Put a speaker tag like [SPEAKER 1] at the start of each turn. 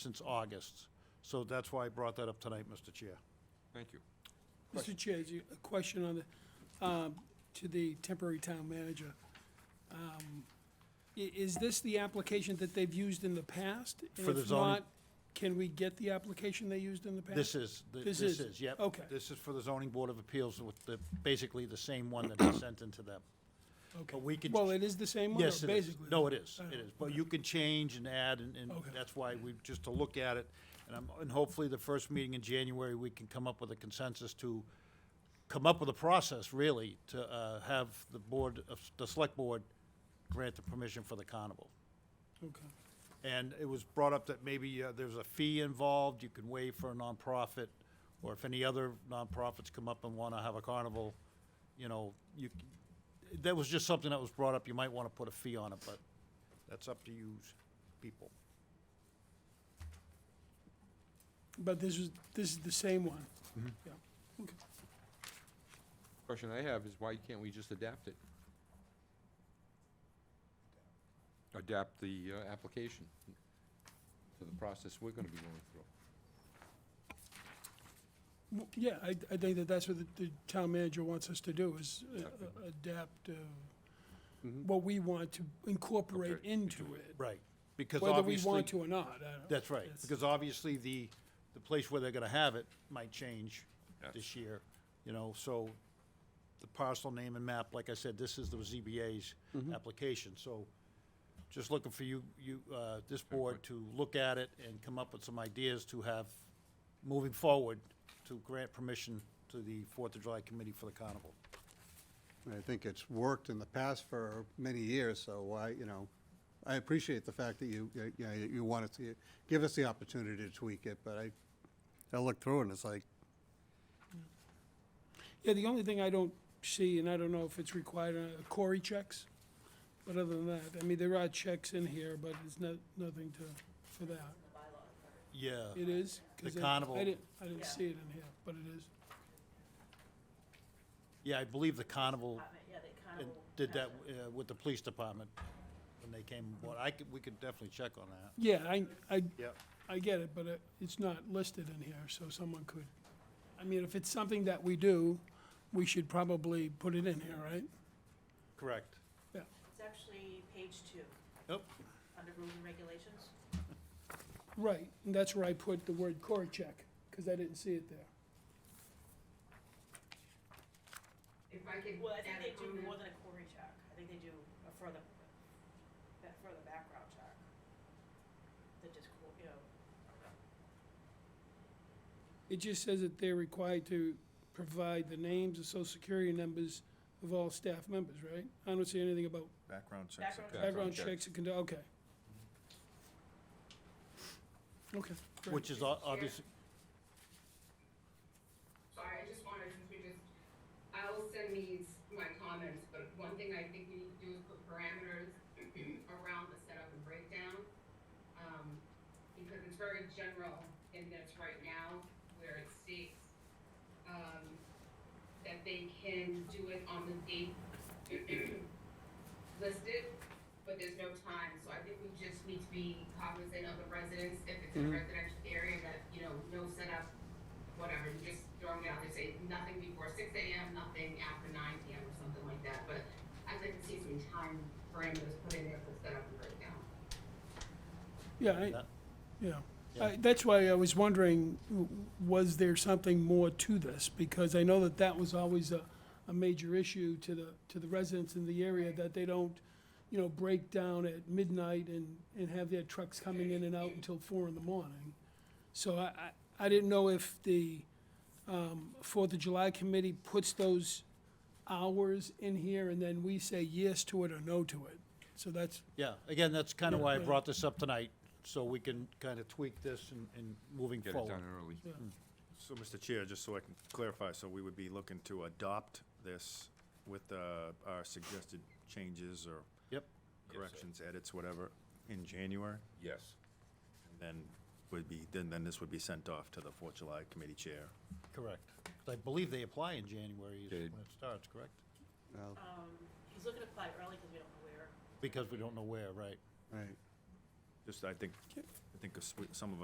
[SPEAKER 1] since August. So that's why I brought that up tonight, Mr. Chair.
[SPEAKER 2] Thank you.
[SPEAKER 3] Mr. Chair, you- a question on the, um, to the temporary town manager. Um, i- Is this the application that they've used in the past? And
[SPEAKER 1] For the
[SPEAKER 3] if
[SPEAKER 1] zoning-
[SPEAKER 3] not, Can we get the application they used in the past?
[SPEAKER 1] This is, th-
[SPEAKER 3] This
[SPEAKER 1] this
[SPEAKER 3] is-
[SPEAKER 1] is, yep.
[SPEAKER 3] okay.
[SPEAKER 1] This is for the zoning board of appeals with the, basically the same one that I sent into them.
[SPEAKER 3] Okay.
[SPEAKER 1] But we can,
[SPEAKER 3] Well, it is the same one, or
[SPEAKER 1] yes, it
[SPEAKER 3] basically?
[SPEAKER 1] is. No, it is,
[SPEAKER 3] I
[SPEAKER 1] it
[SPEAKER 3] don't-
[SPEAKER 1] is. But you can change and add, and, and
[SPEAKER 3] Okay.
[SPEAKER 1] that's why we, just to look at it. And I'm, and hopefully the first meeting in January, we can come up with a consensus to come up with a process, really, to, uh, have the board, of the select board grant the permission for the carnival.
[SPEAKER 3] Okay.
[SPEAKER 1] And it was brought up that maybe uh, there's a fee involved, you can waive for a nonprofit, or if any other nonprofits come up and want to have a carnival, you know, you, c- that was just something that was brought up, you might want to put a fee on it, but that's up to you people.
[SPEAKER 3] But this is, this is the same one? Yeah. Okay.
[SPEAKER 2] Question I have is why can't we just adapt it? Adapt the uh, application to the process we're gonna be going through.
[SPEAKER 3] W- Yeah, I, I think that that's what the, the town manager wants us to do, is uh,
[SPEAKER 2] Exactly.
[SPEAKER 3] uh, adapt uh,
[SPEAKER 1] Mm-hmm.
[SPEAKER 2] Mhm.
[SPEAKER 3] what we want to incorporate
[SPEAKER 2] Okay,
[SPEAKER 3] into
[SPEAKER 2] into
[SPEAKER 3] it,
[SPEAKER 1] Right. Because
[SPEAKER 3] whether we
[SPEAKER 1] obviously,
[SPEAKER 3] want to or not. I don't-
[SPEAKER 1] that's right,
[SPEAKER 3] It's-
[SPEAKER 1] because obviously the, the place where they're going to have it might change
[SPEAKER 2] Yes.
[SPEAKER 1] this year, you know, so the parcel name and map, like I said, this is the ZBA's application, so just looking for you, you, uh, this board to look at it and come up with some ideas to have, moving forward, to grant permission to the Fourth of July Committee for the carnival.
[SPEAKER 4] I think it's worked in the past for many years, so why, you know, I appreciate the fact that you, you know, you wanted to give us the opportunity to tweak it, but I, I looked through and it's like,
[SPEAKER 3] Yeah, the only thing I don't see, and I don't know if it's required, are Cory checks. But other than that, I mean, there are checks in here, but it's not, nothing to, for that.
[SPEAKER 1] Yeah,
[SPEAKER 3] It is? 'Cause
[SPEAKER 1] The
[SPEAKER 3] I-
[SPEAKER 1] carnival.
[SPEAKER 3] I didn't, I didn't see it in here, but it is.
[SPEAKER 1] yeah, I believe the carnival
[SPEAKER 5] department, yeah, they kind
[SPEAKER 1] and
[SPEAKER 5] of.
[SPEAKER 1] did that uh, with the police department when they came, well, I could, we could definitely check on that.
[SPEAKER 3] Yeah, I, I,
[SPEAKER 1] Yep.
[SPEAKER 3] I get it, but it- it's not listed in here, so someone could, I mean, if it's something that we do, we should probably put it in here, right?
[SPEAKER 1] Correct.
[SPEAKER 3] Yeah.
[SPEAKER 5] It's actually page two,
[SPEAKER 1] Yep.
[SPEAKER 5] under rules and regulations.
[SPEAKER 3] Right, and that's where I put the word Cory check, because I didn't see it there.
[SPEAKER 6] If I could
[SPEAKER 5] Well, I think
[SPEAKER 6] add a
[SPEAKER 5] they do
[SPEAKER 6] comment.
[SPEAKER 5] more than a query check. I think they do a further, that further background check. That just, qu- you know,
[SPEAKER 3] It just says that they're required to provide the names and social security numbers of all staff members, right? I don't see anything about
[SPEAKER 7] Background checks.
[SPEAKER 5] background check.
[SPEAKER 3] background
[SPEAKER 2] Background checks.
[SPEAKER 3] checks and, conduct- okay. Okay, great.
[SPEAKER 1] Which is obviously,
[SPEAKER 6] Sorry, I just wanted to just, I will send these, my comments, but one thing I think we need to do is put parameters around the setup and breakdown. Um, because it's very general in this right now, where it states, um, that they can do it on the date listed, but there's no time, so I think we just need to be cognizant of the residents, if it's in a residential area, that, you know, no setup, whatever, you just throw them out, they say nothing before six AM, nothing after nine PM or something like that, but I'd like to see some time parameters put in there for setup and breakdown.
[SPEAKER 3] Yeah, I,
[SPEAKER 1] Yeah.
[SPEAKER 3] yeah.
[SPEAKER 1] Yeah.
[SPEAKER 3] I- That's why I was wondering, w- was there something more to this? Because I know that that was always a, a major issue to the, to the residents in the area, that they don't, you know, break down at midnight and, and have their trucks coming in and out until four in the morning. So I, I, I didn't know if the, um, Fourth of July Committee puts those hours in here and then we say yes to it or no to it. So that's,
[SPEAKER 1] yeah, again, that's kind of
[SPEAKER 3] Yeah,
[SPEAKER 1] why I
[SPEAKER 3] yeah.
[SPEAKER 1] brought this up tonight, so we can kind of tweak this and, and moving
[SPEAKER 2] Get it
[SPEAKER 1] forward.
[SPEAKER 2] done early.
[SPEAKER 3] yeah.
[SPEAKER 7] So, Mr. Chair, just so I can clarify, so we would be looking to adopt this with uh, our suggested changes or
[SPEAKER 1] Yep,
[SPEAKER 2] sir.
[SPEAKER 7] corrections, edits, whatever, in January?
[SPEAKER 2] Yes.
[SPEAKER 7] And Then would be, then, then this would be sent off to the Fourth July Committee Chair.
[SPEAKER 1] correct. 'Cause I believe they apply in January is
[SPEAKER 2] They-
[SPEAKER 1] when it starts, correct?
[SPEAKER 4] well,
[SPEAKER 5] Um, he's looking to apply early because we don't know where.
[SPEAKER 1] Because we don't know where, right?
[SPEAKER 4] right.
[SPEAKER 7] Just, I think, I think a swe- some of us